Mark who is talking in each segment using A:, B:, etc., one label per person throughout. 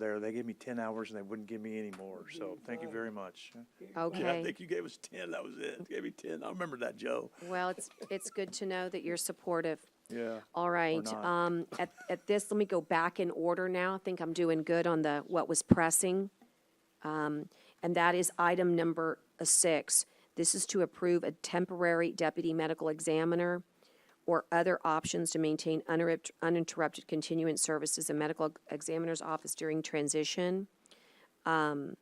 A: there. They gave me ten hours and they wouldn't give me any more, so thank you very much. I
B: Okay.
A: think you gave us ten, that was it. Gave me ten. I remember that, Joe.
B: Well, it's, it's good to know that you're supportive.
A: Yeah.
B: All right.
A: not.
B: Um, at, at this, let me go back in order now. I think I'm doing good on the, what was pressing. Um, and that is item number uh, six. This is to approve a temporary deputy medical examiner or other options to maintain uninterrupt- uninterrupted continuance services in medical examiner's office during transition. Um,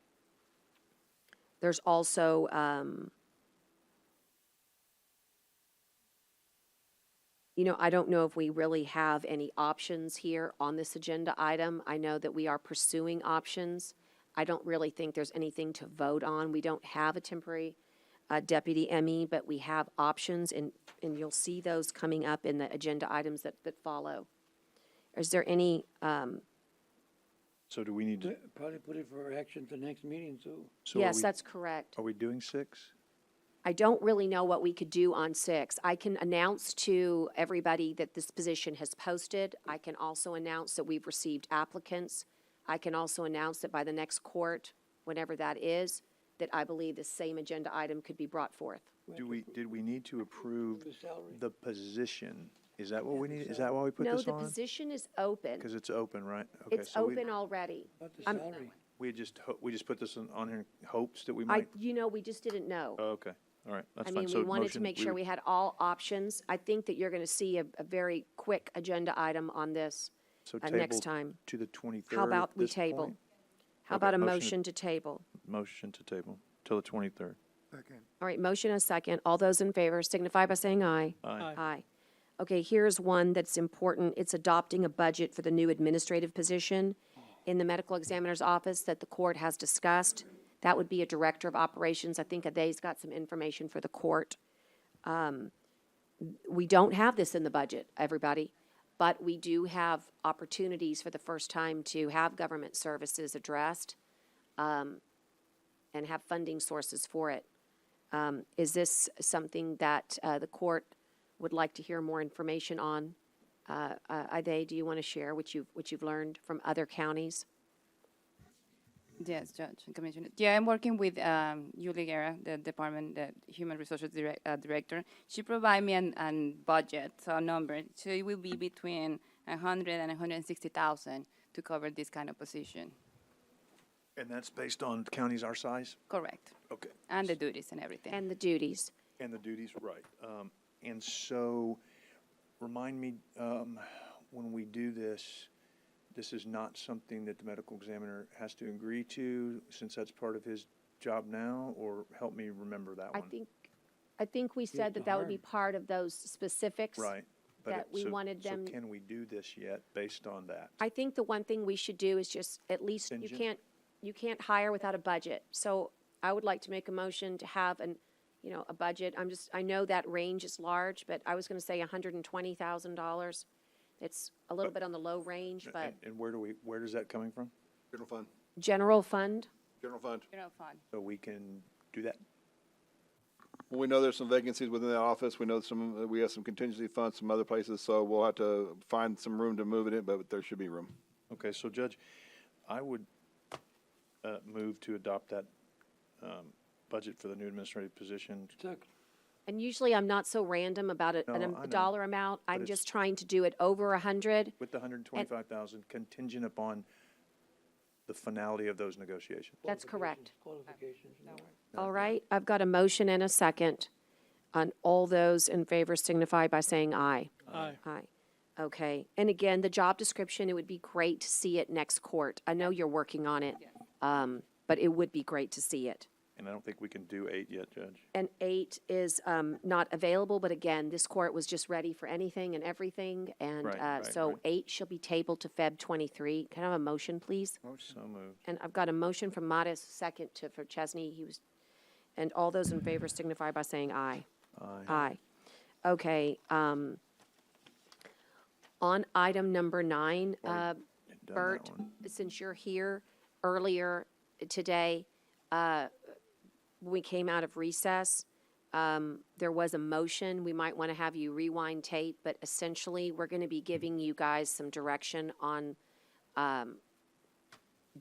B: There's also, um, You know, I don't know if we really have any options here on this agenda item. I know that we are pursuing options. I don't really think there's anything to vote on. We don't have a temporary uh, deputy ME, but we have options, and, and you'll see those coming up in the agenda items that, that follow. Is there any, um,
A: So do we need to,
C: Probably put it for action at the next meeting too.
A: so are
B: yes,
A: we,
B: that's correct.
A: are we doing six?
B: I don't really know what we could do on six. I can announce to everybody that this position has posted. I can also announce that we've received applicants. I can also announce that by the next court, whenever that is, that I believe the same agenda item could be brought forth.
A: Do we, did we need to approve
C: The salary.
A: the position? Is that what we need? Is that why we put
B: No,
A: this
B: the
A: on?
B: position is open.
A: Because it's open, right? Okay,
B: It's
A: so we-
B: open already.
C: Not the
B: I'm-
C: salary.
A: We just, ho- we just put this on, on here in hopes that we
B: I,
A: might,
B: you know, we just didn't know.
A: oh, okay, all right, that's
B: I
A: fine.
B: mean,
A: So
B: we wanted to
A: motion-
B: make sure
A: would-
B: we had all options. I think that you're going to see a, a very quick agenda item on this
A: so
B: uh, next
A: table
B: time.
A: To the twenty-third
B: How about
A: at
B: we
A: this
B: table?
A: point?
B: How
A: Okay,
B: about a
A: motion
B: motion to table?
A: Motion to table till the twenty-third.
B: All right, motion and a second. All those in favor signify by saying aye.
A: Aye.
B: Aye. Okay, here's one that's important. It's adopting a budget for the new administrative position in the medical examiner's office that the court has discussed. That would be a director of operations. I think they's got some information for the court. Um, We don't have this in the budget, everybody, but we do have opportunities for the first time to have government services addressed um, and have funding sources for it. Um, Is this something that uh, the court would like to hear more information on? Uh, uh, Ade, do you want to share what you've, what you've learned from other counties?
D: Yes, Judge and Commissioner. Yeah, I'm working with um, Julie Guerra, the Department, the Human Resources direct, uh, Director. She provided me an, an budget, so a number. So it will be between 100 and 160,000 to cover this kind of position.
A: And that's based on counties our size?
D: Correct.
A: Okay.
D: And the duties and everything.
B: And the duties.
A: And the duties, right. Um, and so, remind me, um, when we do this, this is not something that the medical examiner has to agree to, since that's part of his job now, or help me remember that
B: I
A: one?
B: think, I think we said that that would be part of those specifics.
A: Right. But
B: that
A: it-
B: we
A: so-
B: wanted them-
A: So can we do this yet, based on that?
B: I think the one thing we should do is just, at least, you
A: Contingent.
B: can't, you can't hire without a budget. So I would like to make a motion to have an, you know, a budget. I'm just, I know that range is large, but I was going to say hundred and twenty thousand dollars. It's a little bit on the low range, but
A: Uh, And- And where do we, where is that coming from?
E: General fund,
B: general fund?
E: general fund.
D: General fund.
A: So we can do that?
E: Well, we know there's some vacancies within that office. We know some, we have some contingency funds, some other places, so we'll have to find some room to move it in, but there should be room.
A: Okay, so Judge, I would uh, move to adopt that um, budget for the new administrative position.
C: Second.
B: And usually I'm not so random about a, an
A: No,
B: am-
A: I
B: a
A: know.
B: dollar amount. I'm
A: it's-
B: just trying to do it over a hundred.
A: With the hundred and twenty-five thousand contingent upon the finality of those negotiations.
B: That's correct.
C: Qualifications. no.
B: All right, I've got a motion and a second. On all those in favor signify by saying aye. Aye. Aye. Okay, and again, the job description, it would be great to see it next court. I know you're working on it. Um, but it would be great to see it.
A: And I don't think we can do eight yet, Judge.
B: And eight is um, not available, but again, this court was just ready for anything and everything. And
A: Right,
B: uh,
A: right,
B: so
A: right.
B: eight shall be tabled to Feb 23. Can I have a motion, please?
A: So moved.
B: And I've got a motion from Mattis, second to, for Chesney. He was, and all those in favor signify by saying aye. Aye. Okay. um, On item number nine, uh,
A: Done that
B: Bert,
A: one.
B: since you're here earlier today, uh, when we came out of recess, um, there was a motion. We might want to have you rewind tape, but essentially, we're going to be giving you guys some direction on um,